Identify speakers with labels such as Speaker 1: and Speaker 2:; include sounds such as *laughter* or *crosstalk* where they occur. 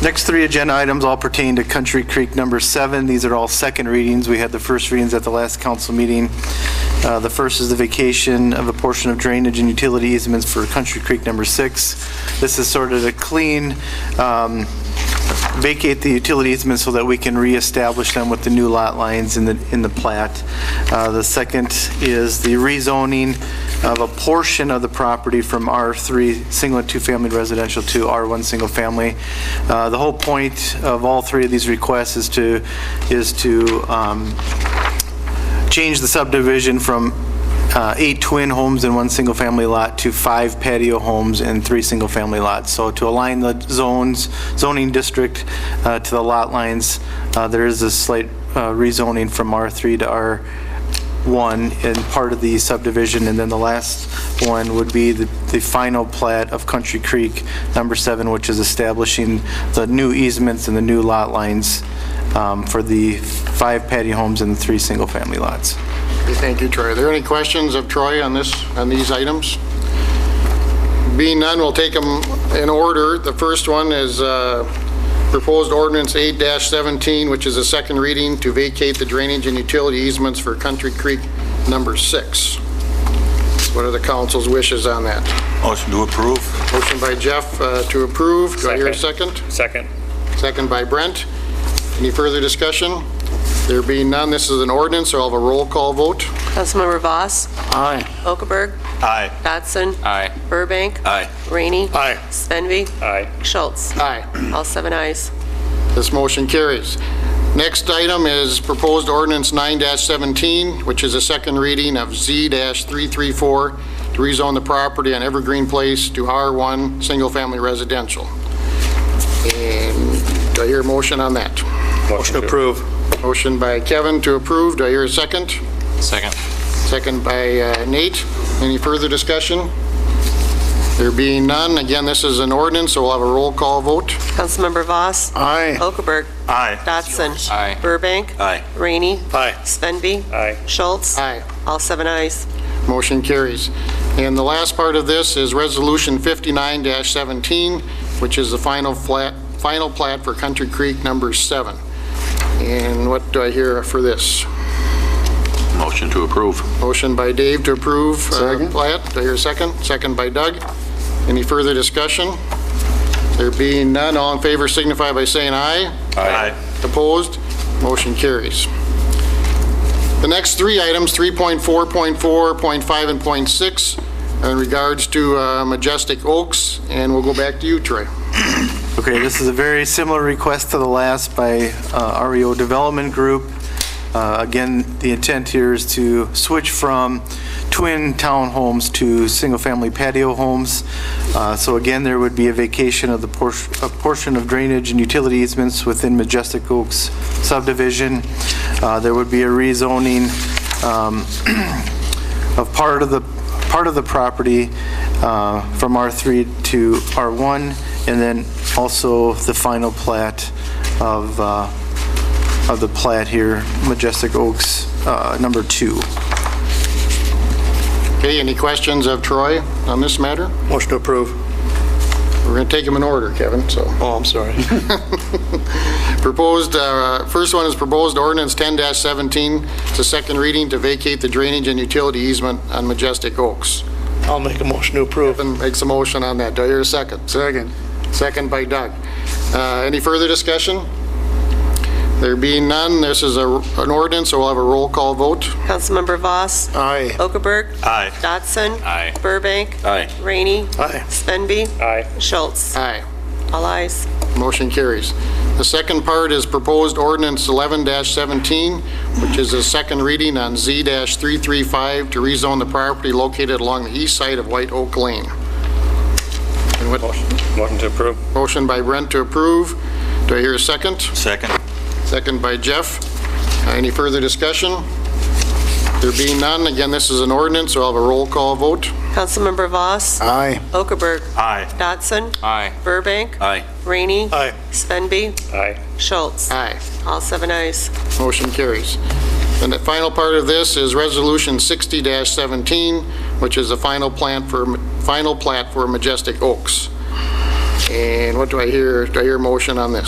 Speaker 1: Next three agenda items all pertain to Country Creek Number Seven. These are all second readings. We had the first readings at the last council meeting. Uh, The first is the vacation of a portion of drainage and utility easements for Country Creek Number Six. This is sort of a clean, um, vacate the utility easement so that we can reestablish them with the new lot lines in the, in the plat. Uh, The second is the rezoning of a portion of the property from R3, single and two-family residential, to R1, single family. Uh, The whole point of all three of these requests is to, is to um, change the subdivision from uh, eight twin homes and one single-family lot to five patio homes and three single-family lots. So to align the zones, zoning district uh, to the lot lines, uh, there is a slight uh, rezoning from R3 to R1 in part of the subdivision. And then the last one would be the the final plat of Country Creek Number 7, which is establishing the new easements and the new lot lines um, for the five patio homes and the three single-family lots.
Speaker 2: Okay, Thank you, Troy. Are there any questions of Troy on this, on these items? Being none, we'll take them in order. The first one is uh, proposed ordinance 8-17, which is a second reading to vacate the drainage and utility easements for Country Creek Number 6. What are the council's wishes on that?
Speaker 3: Motion to approve.
Speaker 2: Motion by Jeff uh, to approve. Do I hear a second?
Speaker 4: Second.
Speaker 2: Second by Brent. Any further discussion? There being none, this is an ordinance, so I'll have a roll call vote.
Speaker 5: Councilmember Voss.
Speaker 2: Aye.
Speaker 5: Okaberg.
Speaker 3: Aye.
Speaker 5: Dotson.
Speaker 4: Aye.
Speaker 5: Burbank.
Speaker 3: Aye.
Speaker 5: Rainey.
Speaker 2: Aye.
Speaker 5: Svenby.
Speaker 4: Aye.
Speaker 5: Schultz.
Speaker 2: Aye.
Speaker 5: All seven ayes.
Speaker 2: This motion carries. Next item is proposed ordinance 9-17, which is a second reading of Z-334 to rezone the property on Evergreen Place to R1 Single Family Residential. And do I hear a motion on that?
Speaker 4: Motion to approve.
Speaker 2: Motion by Kevin to approve. Do I hear a second?
Speaker 4: Second.
Speaker 2: Second by uh, Nate. Any further discussion? There being none, again, this is an ordinance, so we'll have a roll call vote.
Speaker 5: Councilmember Voss.
Speaker 2: Aye.
Speaker 5: Okaberg.
Speaker 3: Aye.
Speaker 5: Dotson.
Speaker 4: Aye.
Speaker 5: Burbank.
Speaker 3: Aye.
Speaker 5: Rainey.
Speaker 4: Aye.
Speaker 5: Svenby.
Speaker 4: Aye.
Speaker 5: Schultz.
Speaker 2: Aye.
Speaker 5: All seven ayes.
Speaker 2: Motion carries. And the last part of this is Resolution 59-17, which is the final flat, final plat for Country Creek Number 7. And what do I hear for this?
Speaker 3: Motion to approve.
Speaker 2: Motion by Dave to approve uh, plat. Do I hear a second? Second by Doug. Any further discussion? There being none, all in favor signify by saying aye.
Speaker 3: Aye.
Speaker 2: Opposed? Motion carries. The next three items, 3.4, .4, and .6, in regards to uh, Majestic Oaks, and we'll go back to you, Troy.
Speaker 1: Okay, this is a very similar request to the last by uh, REO Development Group. Uh, Again, the intent here is to switch from twin townhomes to single-family patio homes. Uh, So again, there would be a vacation of the portion, a portion of drainage and utility easements within Majestic Oaks subdivision. Uh, There would be a rezoning *clears throat* um, of part of the, part of the property uh, from R3 to R1, and then also the final plat of, uh, of the plat here, Majestic Oaks, uh, number two.
Speaker 2: Okay, any questions of Troy on this matter?
Speaker 6: Motion to approve.
Speaker 2: We're going to take them in order, Kevin, so.
Speaker 6: Oh, I'm sorry. *laughs*
Speaker 2: Proposed, uh, first one is proposed ordinance 10-17. It's a second reading to vacate the drainage and utility easement on Majestic Oaks.
Speaker 6: I'll make a motion to approve.
Speaker 2: Kevin makes a motion on that. Do I hear a second? Second. Second by Doug. Uh, Any further discussion? There being none, this is a- an ordinance, so we'll have a roll call vote.
Speaker 5: Councilmember Voss.
Speaker 6: Aye.
Speaker 5: Okaberg.
Speaker 3: Aye.
Speaker 5: Dotson.
Speaker 4: Aye.
Speaker 5: Burbank.
Speaker 3: Aye.
Speaker 5: Rainey.
Speaker 6: Aye.
Speaker 5: Svenby.
Speaker 4: Aye.
Speaker 5: Schultz.
Speaker 2: Aye.
Speaker 5: All ayes.
Speaker 2: Motion carries. The second part is proposed ordinance 11-17, which is a second reading on Z-335 to rezone the property located along the east side of White Oak Lane. And what,
Speaker 4: Motion to approve.
Speaker 2: motion by Brent to approve. Do I hear a second?
Speaker 3: Second.
Speaker 2: Second by Jeff. Uh, Any further discussion? There being none, again, this is an ordinance, so I'll have a roll call vote.
Speaker 5: Councilmember Voss.
Speaker 6: Aye.
Speaker 5: Okaberg.
Speaker 3: Aye.
Speaker 5: Dotson.
Speaker 4: Aye.
Speaker 5: Burbank.
Speaker 3: Aye.
Speaker 5: Rainey.
Speaker 6: Aye.
Speaker 5: Svenby.
Speaker 4: Aye.
Speaker 5: Schultz.
Speaker 2: Aye.
Speaker 5: All seven ayes.
Speaker 2: Motion carries. And the final part of this is Resolution 60-17, which is the final plant for, final plat for Majestic Oaks. And what do I hear? Do I hear a motion on this?